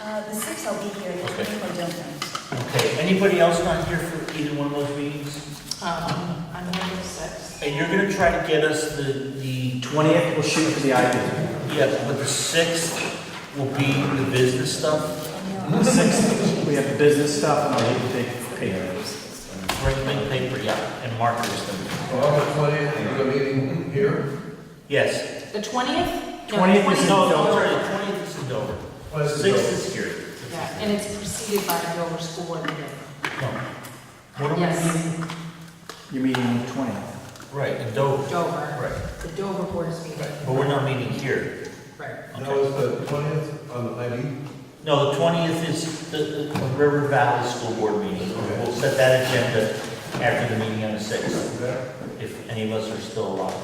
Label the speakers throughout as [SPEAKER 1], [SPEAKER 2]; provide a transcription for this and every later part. [SPEAKER 1] Uh, the sixth I'll be here, the
[SPEAKER 2] Okay.
[SPEAKER 1] twenty-four don't.
[SPEAKER 3] Okay, anybody else not here for either one of those meetings?
[SPEAKER 4] Um, on November sixth.
[SPEAKER 3] And you're gonna try to get us the, the,
[SPEAKER 5] Twentieth, we'll shoot for the IP.
[SPEAKER 3] yeah, but the sixth will be the business stuff,
[SPEAKER 5] The sixth, we have the business stuff, and I'll leave the big paper.
[SPEAKER 3] bring big paper, yeah, and markers them.
[SPEAKER 6] Well, the twentieth, you have a meeting here?
[SPEAKER 3] Yes.
[SPEAKER 4] The twentieth?
[SPEAKER 5] 20th is
[SPEAKER 3] No,
[SPEAKER 5] Dover.
[SPEAKER 3] Oh, no, sorry, the twentieth is in Dover. Sixth is here.
[SPEAKER 4] Yeah, and it's preceded by the Dover School Board meeting.
[SPEAKER 3] No. What are we
[SPEAKER 4] Yes.
[SPEAKER 3] meeting?
[SPEAKER 5] Your meeting on the twentieth.
[SPEAKER 3] Right, in Dover.
[SPEAKER 4] Dover,
[SPEAKER 3] Right,
[SPEAKER 4] the Dover Board is meeting.
[SPEAKER 3] right, but we're not meeting here.
[SPEAKER 4] Right.
[SPEAKER 6] Now, is the twentieth on the ID?
[SPEAKER 3] No, the twentieth is the, the River Valley School Board meeting.
[SPEAKER 6] Okay.
[SPEAKER 3] We'll set that agenda after the meeting on the sixth,
[SPEAKER 6] That-
[SPEAKER 3] if any of us are still alive.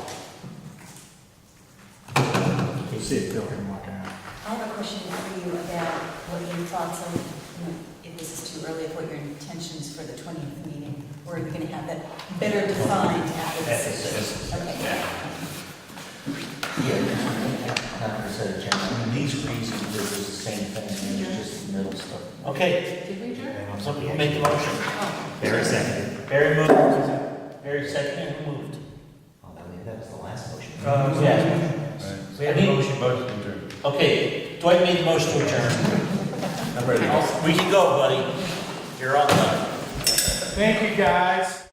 [SPEAKER 5] You'll see it, Bill, him walking out.
[SPEAKER 1] I have a question for you about what your thoughts on, you know, if this is too early, of what your intentions for the twentieth meeting, or are you gonna have that better defined after the
[SPEAKER 3] That's the
[SPEAKER 1] sixth?
[SPEAKER 3] sixth.
[SPEAKER 1] Okay.
[SPEAKER 3] Yeah. Yeah, not the set agenda. I mean, these reasons, it was the same thing, and it was just the middle stuff. Okay,
[SPEAKER 4] Did we adjourn?
[SPEAKER 3] somebody make the motion.
[SPEAKER 4] Oh,
[SPEAKER 3] Barry seconded. Barry moved. Barry seconded and moved. Uh,
[SPEAKER 7] Oh, that was- that was the last motion.
[SPEAKER 3] Yeah.
[SPEAKER 2] We have a motion, vote to adjourn.
[SPEAKER 3] Okay, Dwight made the motion to adjourn. We can go, buddy. You're on time.
[SPEAKER 5] Thank you, guys.